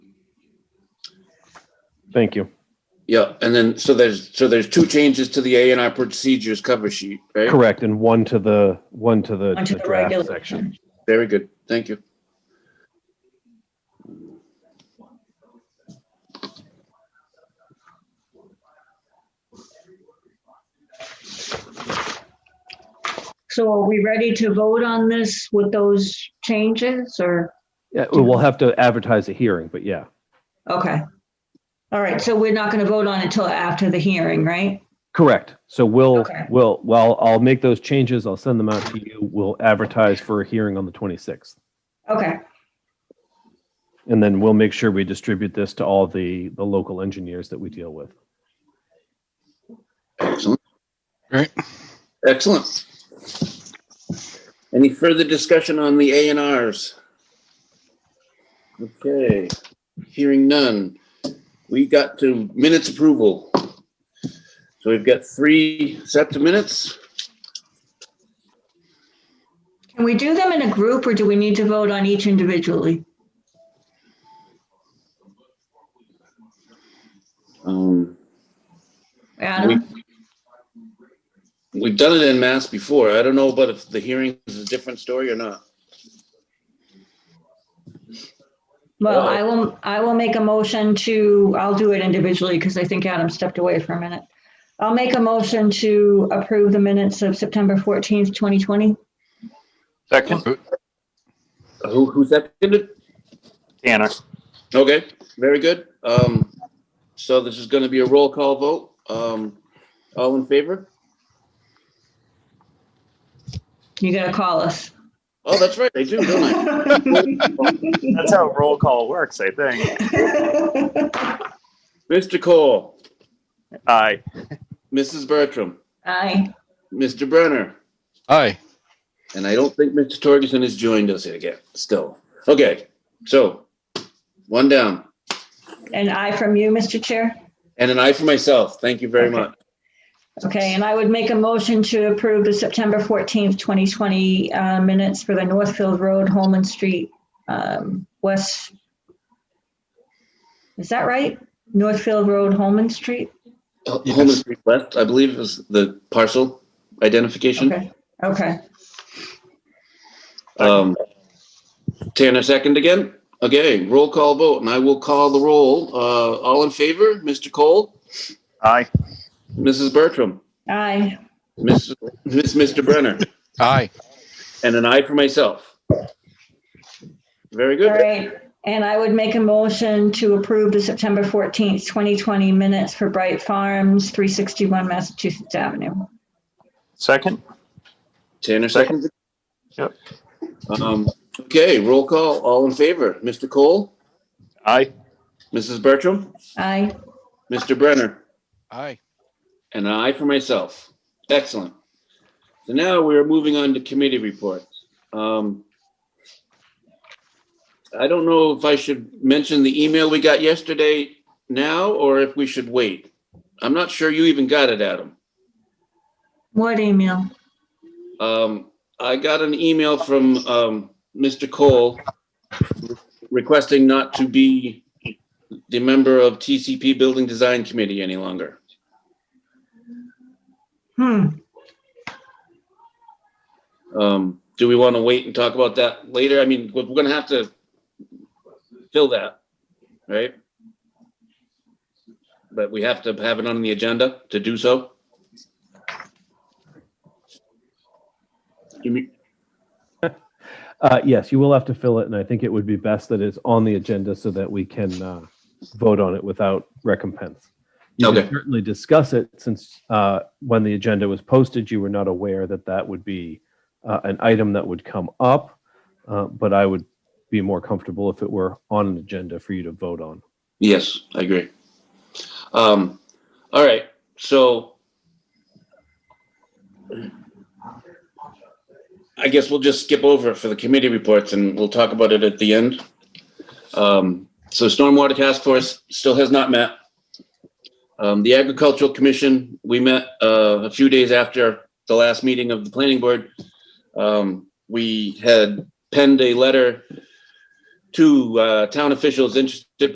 Thank you. Yeah, and then, so there's, so there's two changes to the A and R procedures cover sheet, right? Correct, and one to the, one to the Onto the the draft regular section. Very good, thank you. So are we ready to vote on this with those changes or, Yeah, we'll have to advertise a hearing, but yeah, okay. All right, so we're not going to vote on it until after the hearing, right? correct. So we'll, Okay. we'll, well, I'll make those changes, I'll send them out to you, we'll advertise for a hearing on the 26th. Okay, And then we'll make sure we distribute this to all the, the local engineers that we deal with. Excellent. Great. Excellent. Any further discussion on the A and Rs? Okay, hearing none. We got to minutes approval. So we've got three sets of minutes. can we do them in a group or do we need to vote on each individually? Um, Adam? We've done it in mass before. I don't know, but if the hearing is a different story or not. Well, I will, I will make a motion to, I'll do it individually because I think Adam stepped away for a minute. I'll make a motion to approve the minutes of September 14th, 2020. Second, Who, who seconded? Tanner. Okay, very good. Um, so this is gonna be a roll call vote. Um, all in favor? You got to call us. Oh, that's right, they do, don't That's how roll call works, I think. they? Mr. Cole, Aye. Mrs. Bertram, Aye. Mr. Brenner, Aye. and I don't think Mr. Torgerson has joined us yet again, still. Okay, so, one down, And aye from you, Mr. Chair? and an eye for myself. Thank you very Okay. much. Okay, and I would make a motion to approve the September 14th, 2020 uh, minutes for the Northfield Road, Holman Street, um, West. Is that right? Northfield Road, Holman Street? Yes. Homeless Street West, I believe is the parcel identification. Okay, okay. Um, Tanner second again? Okay, roll call vote, and I will call the roll. Uh, all in favor, Mr. Cole? Aye. Mrs. Bertram, Aye. Miss, Miss, Mr. Brenner, Aye. and an aye for myself. Very All good. right. And I would make a motion to approve the September 14th, 2020 minutes for Bright Farms, 361 Massachusetts Avenue. Second? Tanner seconds. Yep. Um, okay, roll call, all in favor. Mr. Cole, Aye. Mrs. Bertram, Aye. Mr. Brenner, Aye. and an aye for myself. Excellent. So now we're moving on to committee reports. Um, I don't know if I should mention the email we got yesterday now, or if we should wait. I'm not sure you even got it, Adam. What email? Um, I got an email from, um, Mr. Cole requesting not to be the member of TCP Building Design Committee any longer. Hmm. Um, do we want to wait and talk about that later? I mean, we're we're gonna have to fill that, right? But we have to have it on the agenda to do so. You mean- Uh, yes, you will have to fill it, and I think it would be best that it's on the agenda so that we can, uh, vote on it without recompense. You Okay. can certainly discuss it, since, uh, when the agenda was posted, you were not aware that that would be, uh, an item that would come up. Uh, but I would be more comfortable if it were on an agenda for you to vote on. Yes, I agree. Um, all right, so I guess we'll just skip over it for the committee reports and we'll talk about it at the end. Um, so Stormwater Task Force still has not met. Um, the Agricultural Commission, we met, uh, a few days after the last meeting of the planning board. Um, we had penned a letter to, uh, town officials interested